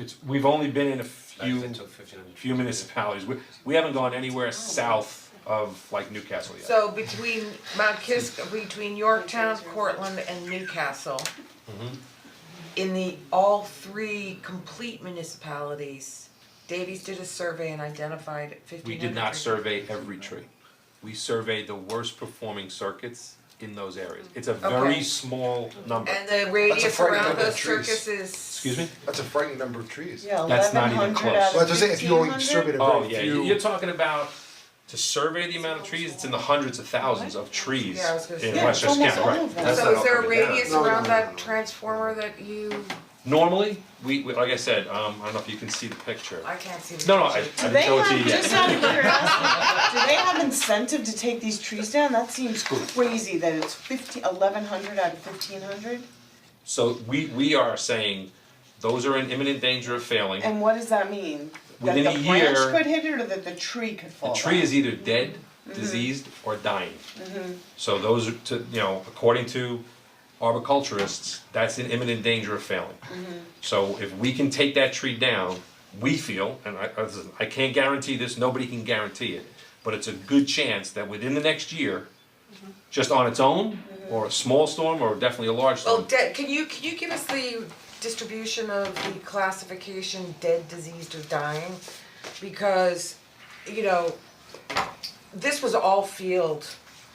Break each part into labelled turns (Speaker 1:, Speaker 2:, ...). Speaker 1: It's, we've only been in a few,
Speaker 2: It took 1500.
Speaker 1: few municipalities, we, we haven't gone anywhere south of like Newcastle yet.
Speaker 3: So between Mount Kisk, between Yorktown, Cortland and Newcastle.
Speaker 4: Mm-hmm.
Speaker 3: In the, all three complete municipalities, Davies did a survey and identified
Speaker 1: We
Speaker 3: fifteen hundred.
Speaker 1: did not survey every tree. We surveyed the worst performing circuits in those areas. It's a very
Speaker 3: Okay.
Speaker 1: small number.
Speaker 3: And the radius
Speaker 4: frightening
Speaker 3: around
Speaker 4: number of
Speaker 3: those
Speaker 4: trees.
Speaker 3: circuses. Excuse
Speaker 1: Excuse me?
Speaker 4: That's a frightening number of trees.
Speaker 5: Yeah,
Speaker 1: That's not
Speaker 5: eleven
Speaker 1: even
Speaker 5: hundred
Speaker 1: close.
Speaker 5: out
Speaker 4: Well, that's
Speaker 5: of
Speaker 4: what I'm saying, if you only surveyed a
Speaker 1: Oh,
Speaker 4: very
Speaker 1: yeah,
Speaker 4: few.
Speaker 1: you- you're talking about to survey the amount of trees, it's in the hundreds of thousands of trees
Speaker 3: Yeah, I was gonna
Speaker 1: in
Speaker 3: say.
Speaker 5: Yeah, it's
Speaker 1: Westchester County, right?
Speaker 5: almost all of them.
Speaker 1: That's
Speaker 3: So
Speaker 1: not
Speaker 3: is there a
Speaker 1: all coming down.
Speaker 3: radius
Speaker 4: No, no,
Speaker 3: around
Speaker 4: no, no,
Speaker 3: that
Speaker 4: no.
Speaker 3: transformer that you,
Speaker 1: Normally, we, we- like I said, um, I don't know if you can see the picture.
Speaker 3: I can't see. the
Speaker 1: No, no, I, I
Speaker 3: picture.
Speaker 1: didn't show it to you
Speaker 5: Do they have, just
Speaker 1: yet.
Speaker 5: out of curiosity, do they have incentive to take these trees down? That seems crazy that it's fifteen, eleven hundred out of fifteen hundred?
Speaker 1: Mm-hmm. So we, we are saying, those are in imminent danger of failing.
Speaker 5: And what does that mean?
Speaker 1: Within a
Speaker 5: That the branch
Speaker 1: year-
Speaker 5: could hit it or that the tree could fall
Speaker 1: The
Speaker 5: down?
Speaker 1: tree is either dead, diseased, or dying. So those are to, you know, according to arboriculturists, that's in imminent danger of failing. So if we can take that tree down, we feel, and I, I listen, I can't guarantee this, nobody can guarantee it, but it's a good chance that within the next year, just on its own, or a small storm, or definitely a large
Speaker 3: Well,
Speaker 1: storm,
Speaker 3: dead, can you, can you give us the distribution of the classification dead, diseased or dying? Because, you know, this was all field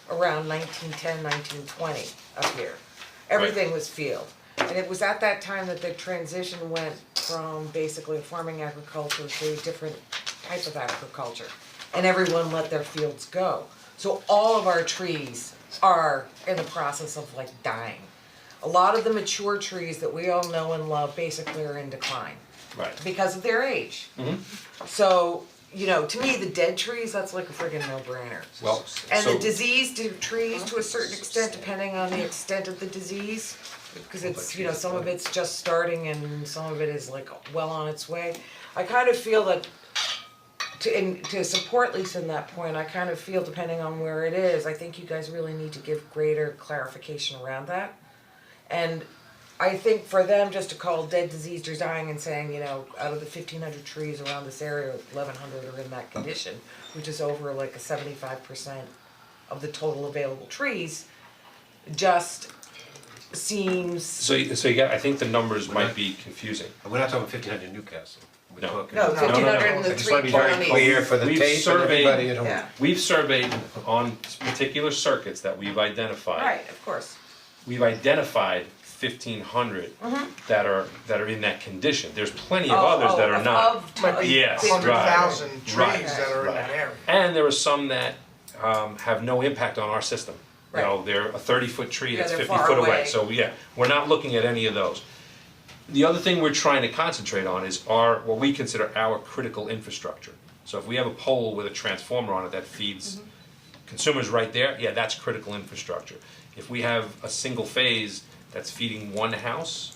Speaker 3: around 1910, 1920 up here. Everything was field. And it was at that time that the transition went from basically farming agriculture to a different type of agriculture. And everyone let their fields go. So all of our trees are in the process of like dying. A lot of the mature trees that we all know and love basically are in decline
Speaker 1: right? Mm-hmm.
Speaker 3: because of their age. So, you know, to me, the dead trees, that's like a friggin' no-brainer.
Speaker 1: Well,
Speaker 3: And
Speaker 1: so-
Speaker 3: the diseased trees, to a certain extent, depending on the extent of the disease, because it's, you know, some of it's just starting and some of it is like well on its way. I kind of feel that, to, and to support Lisa in that point, I kind of feel depending on where it is, I think you guys really need to give greater clarification around that. And I think for them just to call dead, diseased, or dying and saying, you know, out of the fifteen hundred trees around this area, eleven hundred are in that condition, which is over like a seventy-five percent of the total available trees, just seems,
Speaker 1: So, you- so you got, I think the numbers might be confusing.
Speaker 2: We're not talking fifteen hundred Newcastle. We're
Speaker 1: No.
Speaker 2: talking.
Speaker 3: no,
Speaker 1: no, no.
Speaker 3: fifteen hundred in the
Speaker 2: I just wanna
Speaker 3: three
Speaker 2: be
Speaker 3: counties.
Speaker 2: very clear for the
Speaker 1: We've
Speaker 2: tape and
Speaker 1: surveyed-
Speaker 2: everybody at home.
Speaker 3: Yeah,
Speaker 1: We've surveyed on particular circuits that we've identified.
Speaker 3: right, of course,
Speaker 1: We've identified fifteen that are, that are in that condition, there's plenty of
Speaker 3: Mm-hmm. Oh,
Speaker 1: others that
Speaker 3: oh,
Speaker 1: are
Speaker 3: of-
Speaker 1: not.
Speaker 3: of-
Speaker 6: might be
Speaker 1: Yes,
Speaker 6: a hundred
Speaker 1: right,
Speaker 6: thousand trees
Speaker 1: right,
Speaker 6: that are in
Speaker 1: right.
Speaker 6: that area.
Speaker 1: And there are some that um have no impact on our system. You know,
Speaker 3: Right.
Speaker 1: they're a thirty foot tree
Speaker 3: Yeah,
Speaker 1: that's
Speaker 3: they're
Speaker 1: fifty
Speaker 3: far
Speaker 1: foot away,
Speaker 3: away.
Speaker 1: so yeah, we're not looking at any of those. The other thing we're trying to concentrate on is our, what we consider our critical infrastructure. So if we have a pole with a transformer on it that
Speaker 3: Mm-hmm.
Speaker 1: feeds consumers right there, yeah, that's critical infrastructure. If we have a single phase that's feeding one house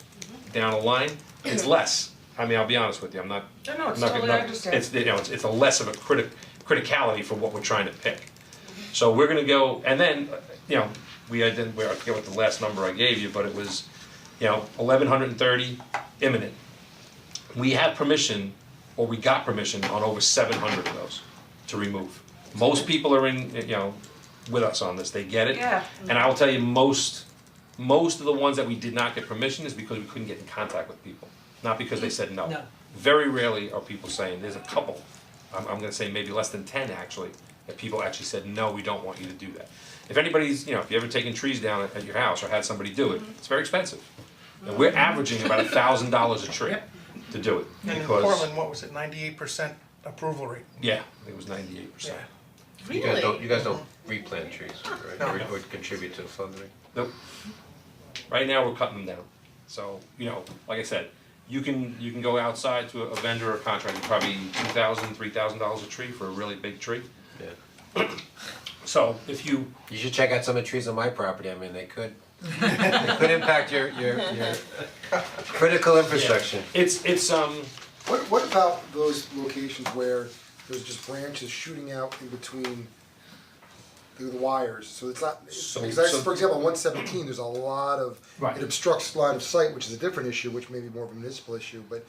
Speaker 1: down a line, it's less. I mean, I'll be honest with you, I'm not,
Speaker 3: No, no, it's
Speaker 1: not gonna-
Speaker 3: totally
Speaker 1: not-
Speaker 3: understand.
Speaker 1: It's, you know, it's, it's a less of a critic, criticality for what we're trying to pick. So we're gonna go, and then, uh, you know, we ident, where, I forget what the last number I gave you, but it was, you know, eleven hundred and thirty imminent. We have permission, or we got permission on over seven hundred of those to remove. Most people are in, you know, with us on this, they get it.
Speaker 3: Yeah.
Speaker 1: And I will tell you, most, most of the ones that we did not get permission is because we couldn't get in contact with people, not because they said no.
Speaker 3: No.
Speaker 1: Very rarely are people saying, there's a couple, I'm, I'm gonna say maybe less than ten actually, that people actually said, no, we don't want you to do that. If anybody's, you know, if you've ever taken trees down at, at your house or had somebody do it, it's very expensive. And we're averaging about a thousand dollars a tree to do it,
Speaker 6: And in
Speaker 1: because,
Speaker 6: Portland, what was it, ninety-eight percent approval rate?
Speaker 1: yeah, it was ninety-eight percent.
Speaker 6: Yeah.
Speaker 2: You guys don't, you guys don't replant trees, right, or, or contribute to flooding?
Speaker 1: Nope. Right now, we're cutting them down. So, you know, like I said, you can, you can go outside to a vendor or contractor, probably two thousand, three thousand dollars a tree for a really big tree.
Speaker 2: Yeah.
Speaker 1: So if you,
Speaker 2: You should check out some of the trees on my property, I mean, they could, they could impact your, your, your critical infrastructure.
Speaker 1: it's, it's, um,
Speaker 4: What, what about those locations where there's just branches shooting out in between the the wires, so it's not,
Speaker 1: So-
Speaker 4: because I,
Speaker 1: so-
Speaker 4: for example, on one seventeen, there's a lot of,
Speaker 1: Right.
Speaker 4: it obstructs line of sight, which is a different issue, which may be more of a municipal issue, but